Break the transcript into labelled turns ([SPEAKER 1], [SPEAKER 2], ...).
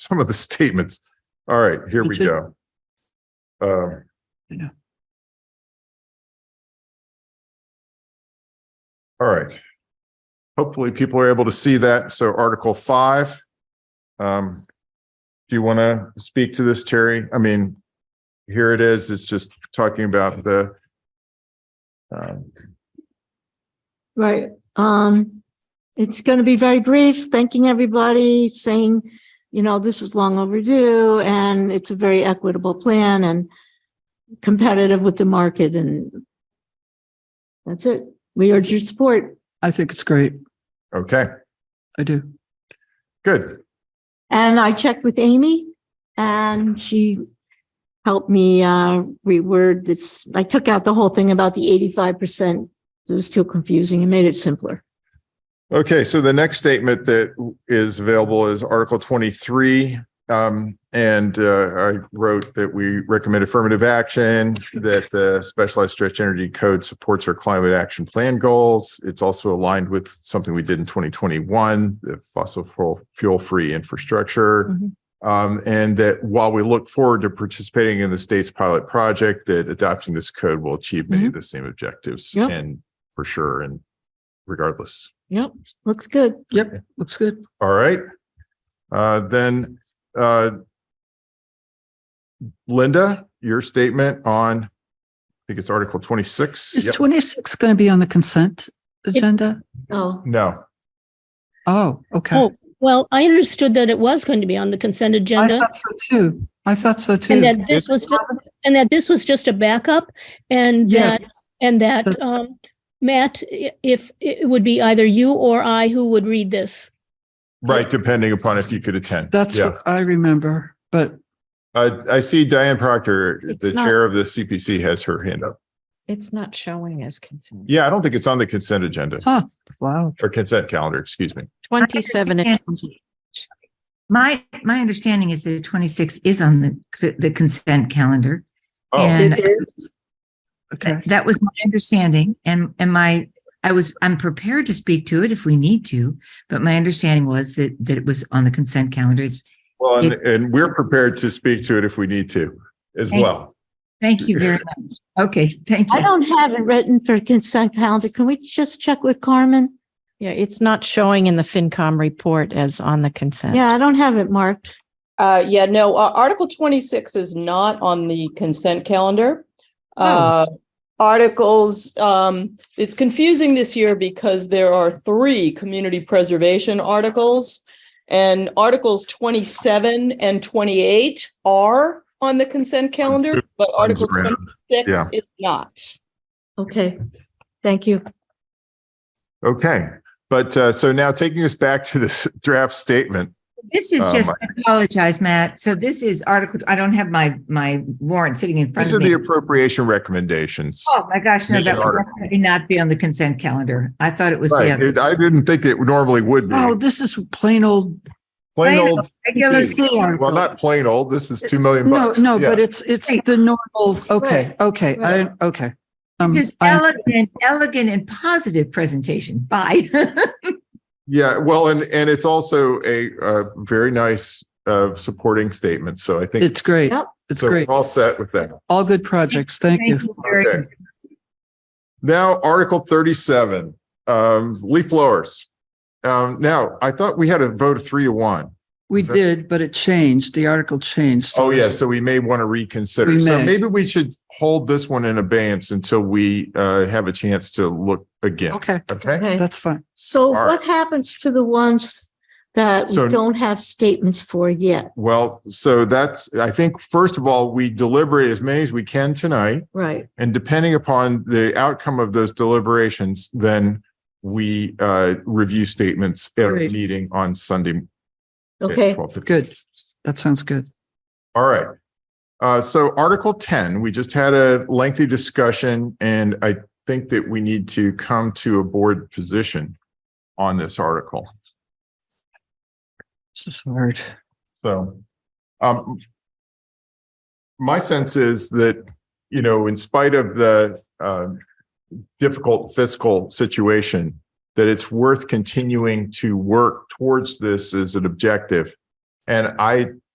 [SPEAKER 1] some of the statements. All right, here
[SPEAKER 2] You
[SPEAKER 1] we
[SPEAKER 2] should-
[SPEAKER 1] go. Um,
[SPEAKER 2] You know.
[SPEAKER 1] All right. Hopefully people are able to see that. So Article five. Um, do you want to speak to this, Terry? I mean, here it is. It's just talking about the um,
[SPEAKER 3] Right, um, it's gonna be very brief, thanking everybody, saying, you know, this is long overdue and it's a very equitable plan and competitive with the market and that's it. We urge your support.
[SPEAKER 2] I think it's great.
[SPEAKER 1] okay,
[SPEAKER 2] I do.
[SPEAKER 1] good.
[SPEAKER 3] And I checked with Amy and she helped me, uh, reword this. I took out the whole thing about the eighty-five percent. It was too confusing and made it simpler.
[SPEAKER 1] Okay, so the next statement that is available is Article 23. um, And uh, I wrote that we recommend affirmative action, that the Specialized Stretch Energy Code supports our climate action plan goals. It's also aligned with something we did in 2021, the fossil fu- fuel-free infrastructure.
[SPEAKER 3] Mhm.
[SPEAKER 1] Um, And that while we look forward to participating in the state's pilot project, that adopting this code will achieve many of the same objectives.
[SPEAKER 3] Yep.
[SPEAKER 1] And for sure, and regardless.
[SPEAKER 3] Yep, looks good.
[SPEAKER 2] Yep, looks good.
[SPEAKER 1] All right. Uh, then, uh, Linda, your statement on, I think it's Article
[SPEAKER 2] Is
[SPEAKER 1] 26. Yep.
[SPEAKER 2] 26 going to be on the consent agenda?
[SPEAKER 3] Oh,
[SPEAKER 1] No,
[SPEAKER 2] Oh, okay.
[SPEAKER 4] Oh, well, I understood that it was going to be on the consent
[SPEAKER 2] I
[SPEAKER 4] agenda
[SPEAKER 2] thought so too. I thought so
[SPEAKER 4] and
[SPEAKER 2] too.
[SPEAKER 4] that this was, ju- and that this was just a backup and
[SPEAKER 2] Yes,
[SPEAKER 4] that, and that,
[SPEAKER 2] That's-
[SPEAKER 4] um, Matt, i- if it would be either you or I who would read this.
[SPEAKER 1] right, depending upon if you could attend.
[SPEAKER 2] that's
[SPEAKER 1] Yeah.
[SPEAKER 2] what I remember, but
[SPEAKER 1] Uh, I see Diane Proctor,
[SPEAKER 5] It's
[SPEAKER 1] the
[SPEAKER 5] not-
[SPEAKER 1] chair of the CPC has her hand up.
[SPEAKER 5] It's not showing as consent.
[SPEAKER 1] Yeah, I don't think it's on the consent agenda
[SPEAKER 2] Huh. wow.
[SPEAKER 1] or consent calendar, excuse me.
[SPEAKER 5] Twenty-seven and
[SPEAKER 6] understand- My, my understanding is that 26 is on the, the consent calendar.
[SPEAKER 1] Oh,
[SPEAKER 6] And-
[SPEAKER 2] It is. Okay.
[SPEAKER 6] That was my understanding and, and my, I was, I'm prepared to speak to it if we need to, but my understanding was that, that it was on the consent calendar. It's-
[SPEAKER 1] well, and, and we're prepared to speak to it if we need to as
[SPEAKER 6] Thank-
[SPEAKER 1] well.
[SPEAKER 6] Thank you very much. Okay, thank
[SPEAKER 3] I
[SPEAKER 6] you.
[SPEAKER 3] don't have it written for consent calendar. Can we just check with Carmen?
[SPEAKER 5] Yeah, it's not showing in the FinCom report as on the consent.
[SPEAKER 3] Yeah, I don't have it marked.
[SPEAKER 7] Uh, yeah, no, uh, Article twenty-six is not on the consent calendar. Uh, articles, um, it's confusing this year because there are three community preservation articles. And Articles twenty-seven and twenty-eight are on the consent calendar, but Article
[SPEAKER 1] Random. Yeah.
[SPEAKER 7] twenty-six is not.
[SPEAKER 3] Okay, thank you.
[SPEAKER 1] Okay, but, uh, so now taking us back to this draft statement.
[SPEAKER 6] This is
[SPEAKER 1] Oh,
[SPEAKER 6] just,
[SPEAKER 1] my-
[SPEAKER 6] I apologize, Matt. So this is article, I don't have my, my warrant sitting in front
[SPEAKER 1] These
[SPEAKER 6] of
[SPEAKER 1] are the
[SPEAKER 6] me.
[SPEAKER 1] appropriation recommendations.
[SPEAKER 6] Oh, my gosh, no,
[SPEAKER 1] These
[SPEAKER 6] that
[SPEAKER 1] are-
[SPEAKER 6] would definitely not be on the consent calendar. I thought it was the
[SPEAKER 1] Right.
[SPEAKER 6] other.
[SPEAKER 1] It- I didn't think it normally would be.
[SPEAKER 2] Oh, this is plain old,
[SPEAKER 1] Plain
[SPEAKER 6] plain
[SPEAKER 1] old,
[SPEAKER 6] Regular C article.
[SPEAKER 1] well, not plain old, this is 2 million
[SPEAKER 2] no,
[SPEAKER 1] bucks.
[SPEAKER 2] no, but
[SPEAKER 1] Yeah.
[SPEAKER 2] it's, it's the normal, okay, okay, I, okay. Um,
[SPEAKER 6] This is
[SPEAKER 2] I-
[SPEAKER 6] elegant, elegant and positive presentation. Bye.
[SPEAKER 1] Yeah, well, and, and it's also a, uh, very nice, uh, supporting statement. So I think.
[SPEAKER 2] It's great.
[SPEAKER 3] Yep.
[SPEAKER 2] It's
[SPEAKER 1] so we're
[SPEAKER 2] great.
[SPEAKER 1] All set with that.
[SPEAKER 2] All good projects. Thank you.
[SPEAKER 6] very
[SPEAKER 1] Okay.
[SPEAKER 6] much.
[SPEAKER 1] Now, Article thirty-seven, um, leaf blowers. Um, now, I thought we had a vote of three to one.
[SPEAKER 2] We
[SPEAKER 1] Is that-
[SPEAKER 2] did, but it changed. The article changed.
[SPEAKER 1] Oh, yeah, so we may want to reconsider.
[SPEAKER 2] We
[SPEAKER 1] So
[SPEAKER 2] may.
[SPEAKER 1] maybe we should hold this one in abeyance until we, uh, have a chance to look again.
[SPEAKER 2] Okay,
[SPEAKER 1] Okay?
[SPEAKER 3] Okay,
[SPEAKER 2] that's fine.
[SPEAKER 3] so
[SPEAKER 1] All right.
[SPEAKER 3] what happens to the ones that
[SPEAKER 1] So-
[SPEAKER 3] we don't have statements for yet?
[SPEAKER 1] Well, so that's, I think, first of all, we deliberate as many as we can tonight.
[SPEAKER 3] Right,
[SPEAKER 1] And depending upon the outcome of those deliberations, then we uh review statements at our
[SPEAKER 2] Great.
[SPEAKER 1] meeting on Sunday. at
[SPEAKER 3] okay,
[SPEAKER 1] 12:15.
[SPEAKER 2] Good. That sounds good.
[SPEAKER 1] All right. Uh, so Article ten, we just had a lengthy discussion and I think that we need to come to a board position on this article.
[SPEAKER 2] This is hard.
[SPEAKER 1] So, um, my sense is that, you know, in spite of the, uh, difficult fiscal situation, that it's worth continuing to work towards this as an objective And I